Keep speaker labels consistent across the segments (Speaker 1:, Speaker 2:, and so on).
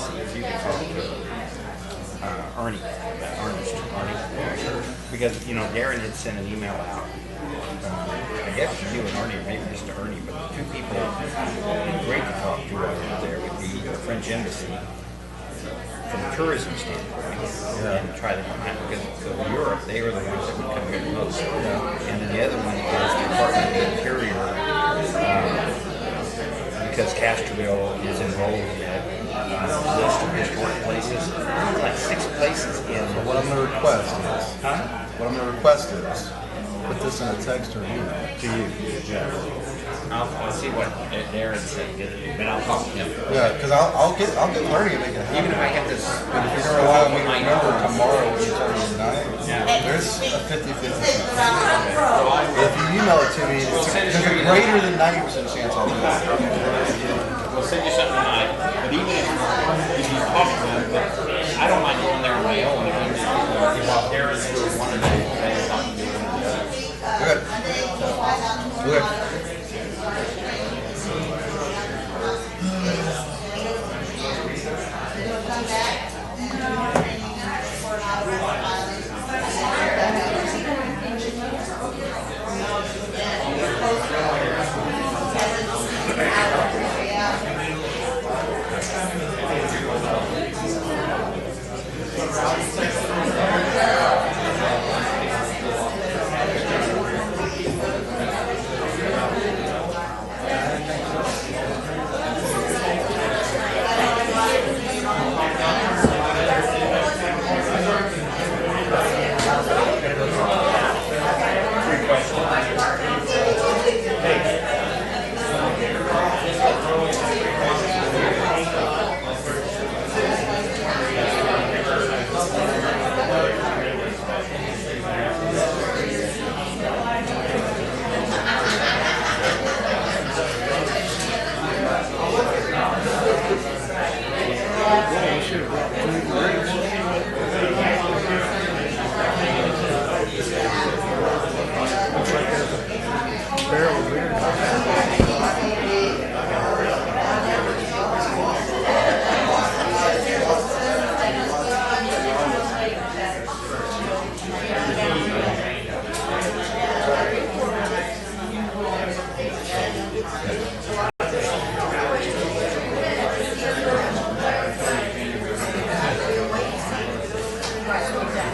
Speaker 1: uh, Arnie, about Arnie's Arnie, because you know Darren had sent an email out. um, I guess to you and Arnie, or maybe just to Ernie, but the two people that would be great to talk to over there would be the French embassy from a tourism standpoint and try to find because of Europe they were the ones that would come here the most. And then the other one is the Department of Interior. um, because Castroville is enrolled in that uh, list of historic places. There's Like six places in.
Speaker 2: But what I'm going to request is,
Speaker 1: Huh?
Speaker 2: what I'm going to request is, put this in a text or an email.
Speaker 1: To you. I'll, I'll see what Darren said, but I'll talk to him.
Speaker 2: Yeah, because I'll, I'll get, I'll get learning and make it
Speaker 1: Even
Speaker 2: happen.
Speaker 1: if I have this.
Speaker 2: But if you're going to allow me to remember tomorrow what you're telling me
Speaker 1: Yeah.
Speaker 2: tonight, there's a 50-50 chance. If you email it to me, it's- there's a greater than 90% chance I'll do it.
Speaker 3: We'll send you something tonight, but even if, if you talk to them, but I don't mind going there on my own. If I'm just, if I'm there, it's for one of them. okay, I'll do it.
Speaker 2: Good. Good.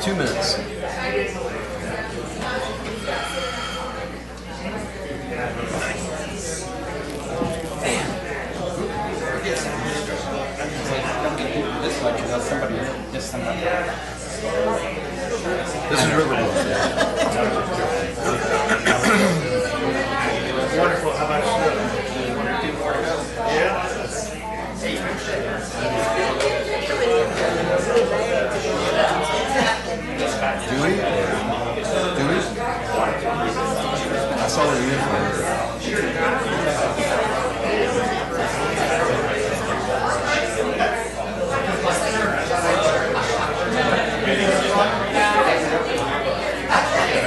Speaker 2: Two minutes.
Speaker 3: It's like, don't get people this much, unless somebody, just somebody.
Speaker 2: This is Riverwood.
Speaker 4: Wonderful. How about you? Yeah.
Speaker 2: Do we? Do we? I saw the uniform.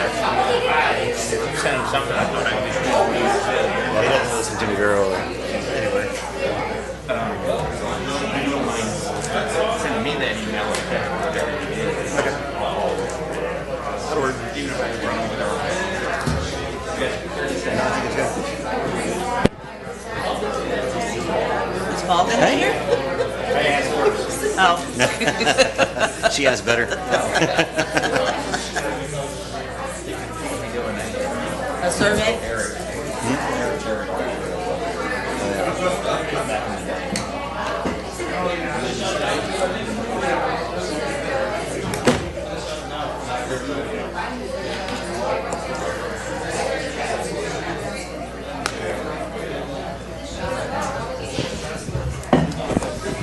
Speaker 1: Send him something. I thought I could.
Speaker 5: They didn't listen to me earlier. Anyway,
Speaker 1: Send me that email. or whatever.
Speaker 5: that'll work. Even
Speaker 6: Is Paul been here? Oh,
Speaker 5: if she has better.
Speaker 6: a survey?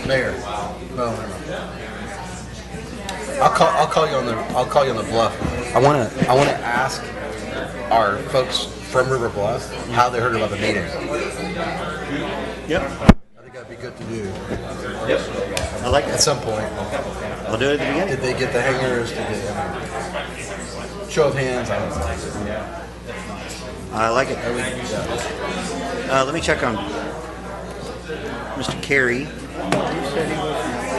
Speaker 2: Mayor. No, never mind. I'll call. I'll call you on the. I'll call you on the bluff. I want to. I want to ask our folks from River Bluff how they heard about the meeting. I
Speaker 5: Yep.
Speaker 2: think that'd be good to do
Speaker 5: I like
Speaker 2: at
Speaker 5: that.
Speaker 2: some point.
Speaker 5: I'll do it at the beginning.
Speaker 2: Did they get the hangers? Did they? Show of hands. I don't know.
Speaker 5: I like it. Uh, let me check on Mr. Carey.